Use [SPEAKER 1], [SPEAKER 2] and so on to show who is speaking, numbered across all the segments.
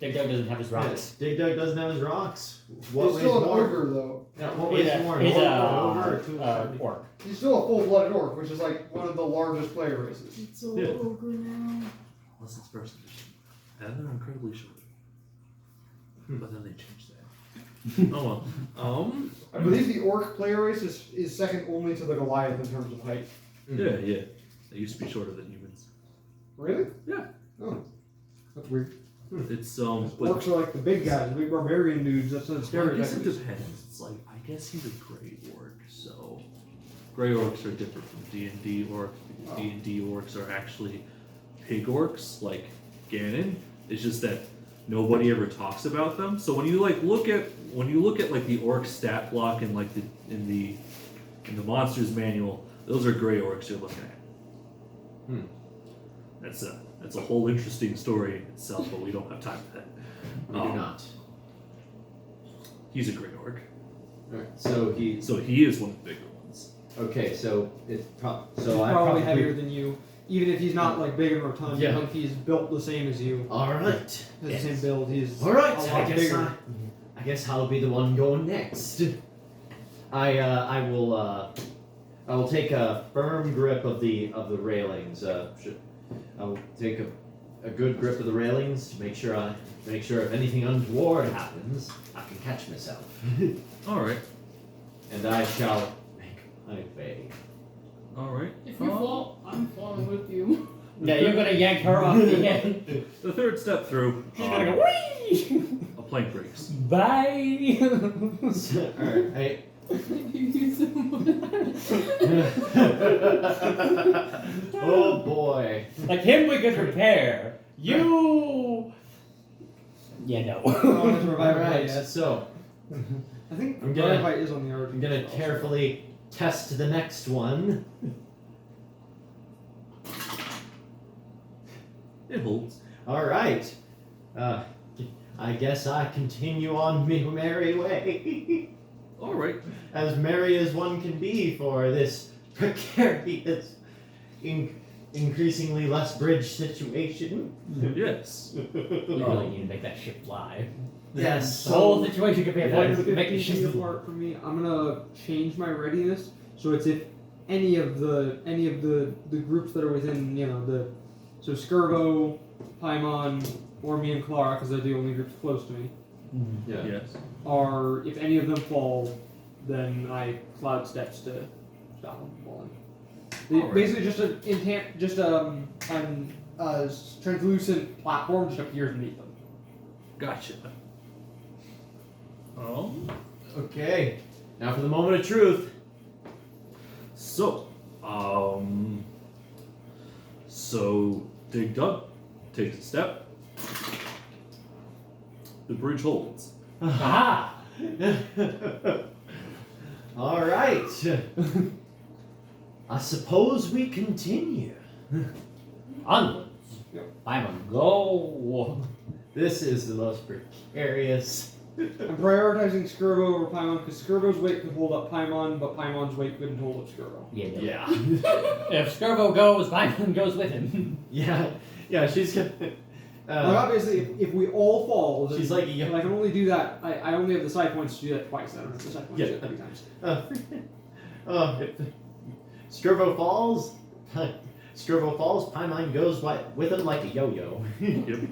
[SPEAKER 1] Dig Dug doesn't have his rocks.
[SPEAKER 2] Dig Dug doesn't have his rocks. What
[SPEAKER 3] He's
[SPEAKER 2] weighs
[SPEAKER 3] still an
[SPEAKER 2] more?
[SPEAKER 3] ogre, though.
[SPEAKER 2] Yeah, what
[SPEAKER 1] He's
[SPEAKER 2] weighs
[SPEAKER 1] a,
[SPEAKER 2] more?
[SPEAKER 1] he's
[SPEAKER 2] one
[SPEAKER 1] a,
[SPEAKER 2] over or two
[SPEAKER 1] uh,
[SPEAKER 2] seventy?
[SPEAKER 1] orc.
[SPEAKER 3] He's still a full-blooded orc, which is like one of the largest player races.
[SPEAKER 4] It's all
[SPEAKER 2] Yeah.
[SPEAKER 4] ogre now.
[SPEAKER 5] Unless it's first edition. And they're incredibly short. But then they changed that. Hmm. oh well. Um.
[SPEAKER 3] I believe the orc player race is, is second only to the Goliath in terms of height.
[SPEAKER 5] Yeah, yeah. They used to be shorter than humans.
[SPEAKER 3] Really?
[SPEAKER 5] Yeah.
[SPEAKER 3] Oh, that's weird.
[SPEAKER 5] It's um. But
[SPEAKER 3] Orcs are like the big guys, the big barbarian dudes. That's not
[SPEAKER 5] I guess it
[SPEAKER 3] stereotype.
[SPEAKER 5] depends. It's like I guess he's a gray orc, so gray orcs are different from D and D orcs. D and D orcs are actually pig orcs, like Ganon. It's just that nobody ever talks about them. So when you like look at when you look at like the orc stat block and like the in the in the monsters manual, those are gray orcs you're looking at.
[SPEAKER 2] Hmm.
[SPEAKER 5] That's a that's a whole interesting story in itself, but we don't have time for that.
[SPEAKER 2] We do
[SPEAKER 5] Um,
[SPEAKER 2] not.
[SPEAKER 5] He's a gray orc.
[SPEAKER 2] Alright, so he's
[SPEAKER 5] So he is one of the bigger ones.
[SPEAKER 2] okay. So it's pro- so
[SPEAKER 3] he's
[SPEAKER 2] I
[SPEAKER 3] probably heavier than you, even if he's not like big and rotund.
[SPEAKER 2] Yeah.
[SPEAKER 3] Like he's built the same as you,
[SPEAKER 2] All right,
[SPEAKER 3] has the same build. He's
[SPEAKER 2] all right.
[SPEAKER 3] a
[SPEAKER 2] Oh, I
[SPEAKER 3] lot
[SPEAKER 2] guess
[SPEAKER 3] bigger.
[SPEAKER 2] I, I guess I'll be the one going next. I uh, I will uh, I will take a firm grip of the of the railings. Uh, should, I will take a, a good grip of the railings to make sure I make sure if anything untoward happens, I can catch myself.
[SPEAKER 5] All right,
[SPEAKER 2] and I shall make my way.
[SPEAKER 5] all right.
[SPEAKER 4] If
[SPEAKER 5] Uh,
[SPEAKER 4] you fall, I'm falling with you.
[SPEAKER 1] Yeah, you're gonna yank her off the Oh. end.
[SPEAKER 5] Um, the third step through,
[SPEAKER 1] She's gonna
[SPEAKER 5] um,
[SPEAKER 1] go wee.
[SPEAKER 5] a plank breaks.
[SPEAKER 1] Bye.
[SPEAKER 2] All right. I,
[SPEAKER 4] Thank you so much.
[SPEAKER 2] oh boy.
[SPEAKER 1] like him, we could repair. You. Yeah,
[SPEAKER 3] Oh,
[SPEAKER 1] no.
[SPEAKER 3] that's a revival
[SPEAKER 2] Alright,
[SPEAKER 3] fight.
[SPEAKER 2] so
[SPEAKER 3] I think
[SPEAKER 2] I'm gonna-
[SPEAKER 3] revival fight is on the RPG.
[SPEAKER 2] I'm gonna
[SPEAKER 3] also.
[SPEAKER 2] carefully test the next one.
[SPEAKER 5] It holds.
[SPEAKER 2] Alright. Uh, I guess I continue on my merry way.
[SPEAKER 5] All right.
[SPEAKER 2] as merry as one can be for this precarious, in- increasingly less bridge situation.
[SPEAKER 5] Yes.
[SPEAKER 1] We really need to make that ship fly.
[SPEAKER 2] yes.
[SPEAKER 1] The whole situation could be
[SPEAKER 2] Yeah,
[SPEAKER 1] avoided
[SPEAKER 3] If
[SPEAKER 1] if we could make the ship
[SPEAKER 3] feet apart from me. I'm gonna change my readiness so it's if any of the any of the the groups that are within you know the so Skirbo, Paimon, or me and Clara because they're the only groups close to me
[SPEAKER 2] Yeah.
[SPEAKER 5] Yes.
[SPEAKER 3] are if any of them fall, then I cloud steps to stop them from falling. They-
[SPEAKER 5] Alright.
[SPEAKER 3] Basically, just an intent, just um an uh, translucent platform just appears beneath them.
[SPEAKER 5] Gotcha. Um.
[SPEAKER 2] Okay. Now for the moment of truth.
[SPEAKER 5] So, um. So Dig Dug takes a step. The bridge holds.
[SPEAKER 1] Aha!
[SPEAKER 2] All right. I suppose we continue.
[SPEAKER 1] Onwards.
[SPEAKER 3] Yep.
[SPEAKER 1] I'm a go.
[SPEAKER 2] This is the most precarious.
[SPEAKER 3] I'm prioritizing Skirbo over Paimon because Skirbo's weight could hold up Paimon, but Paimon's weight couldn't hold up Skirbo.
[SPEAKER 1] Yeah. no.
[SPEAKER 2] Yeah.
[SPEAKER 1] If Skirbo goes, Vineland goes with him.
[SPEAKER 2] yeah. Yeah. She's gonna.
[SPEAKER 3] like
[SPEAKER 2] Uh,
[SPEAKER 3] obviously, if, if we all fall, then
[SPEAKER 2] she's like, yeah.
[SPEAKER 3] and I can only do that. I, I only have the side points to do that twice. I don't have the side points to do
[SPEAKER 2] Yeah.
[SPEAKER 3] that three times.
[SPEAKER 2] Uh, uh, if Scrivo falls. Pi- Scrivo falls. Paimon goes wi- with him like a yo-yo.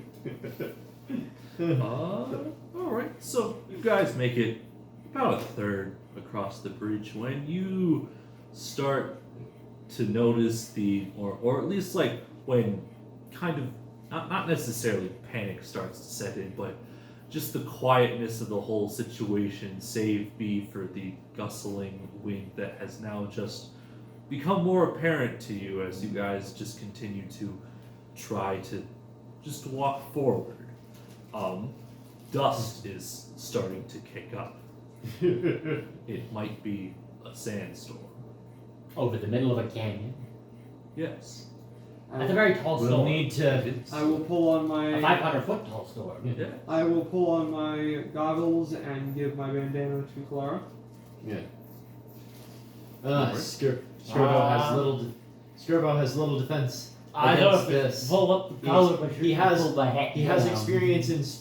[SPEAKER 5] Yep. Uh, all right. So you guys make it about a third across the bridge when you start to notice the, or or at least like when kind of not not necessarily panic starts to set in, but just the quietness of the whole situation, save be for the gustling wind that has now just become more apparent to you as you guys just continue to try to just walk forward. Um, dust is starting to kick up. It might be a sandstorm.
[SPEAKER 1] Over the middle of a canyon.
[SPEAKER 5] Yes.
[SPEAKER 3] I
[SPEAKER 1] That's a
[SPEAKER 3] will,
[SPEAKER 1] very tall
[SPEAKER 2] we'll
[SPEAKER 1] storm.
[SPEAKER 2] need to.
[SPEAKER 5] It's,
[SPEAKER 3] Um, I will pull on
[SPEAKER 1] a
[SPEAKER 3] my
[SPEAKER 1] 500 foot tall storm.
[SPEAKER 5] yeah.
[SPEAKER 3] I will pull on my goggles and give my bandana to Clara.
[SPEAKER 2] Uh, Skir- Scrivo
[SPEAKER 1] Ah.
[SPEAKER 2] has little. De- Scrivo has little defense.
[SPEAKER 1] I don't
[SPEAKER 2] against this.
[SPEAKER 1] pull up the
[SPEAKER 2] He's-
[SPEAKER 1] collar, but
[SPEAKER 2] he has-
[SPEAKER 1] pull the heck
[SPEAKER 2] He has
[SPEAKER 1] down.
[SPEAKER 2] experience in